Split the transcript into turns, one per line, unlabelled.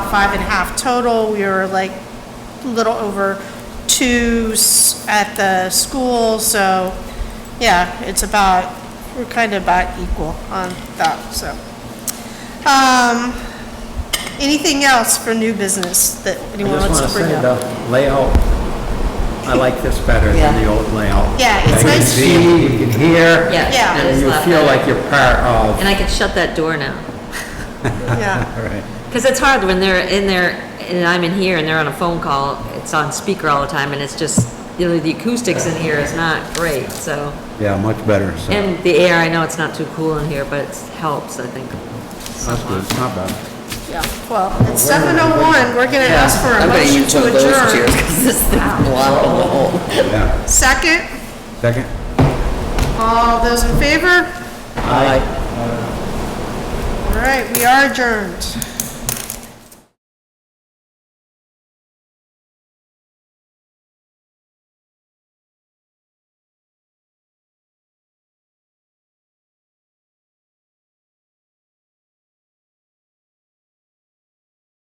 five and a half total. We were like a little over two s- at the school, so yeah, it's about, we're kind of about equal on that, so. Um, anything else for new business that
I
anyone
just
wants
want
to
to
bring
say
up?
the layout, I like this better than
Yeah.
the old layout.
Yeah, it's
You can
nice.
see, you can hear.
Yeah. it
Yeah.
And
is a
you
lot
feel
better.
like you're part of.
And I can shut that door now.
Yeah,
All right.
Because it's hard when they're in there, and I'm in here, and they're on a phone call, it's on speaker all the time, and it's just, you know, the acoustics in here is not great, so.
Yeah, much better, so.
And the air, I know it's not too cool in here, but it helps, I think.
That's good, it's not bad.
yeah, well, it's seven oh one, we're gonna ask for a
I'm gonna
motion
use
to
one of those chairs,
adjourn.
'cause this thing's blowing the hole.
Yeah.
Second,
Second?
all those in favor?
Aye.
All right, we are adjourned.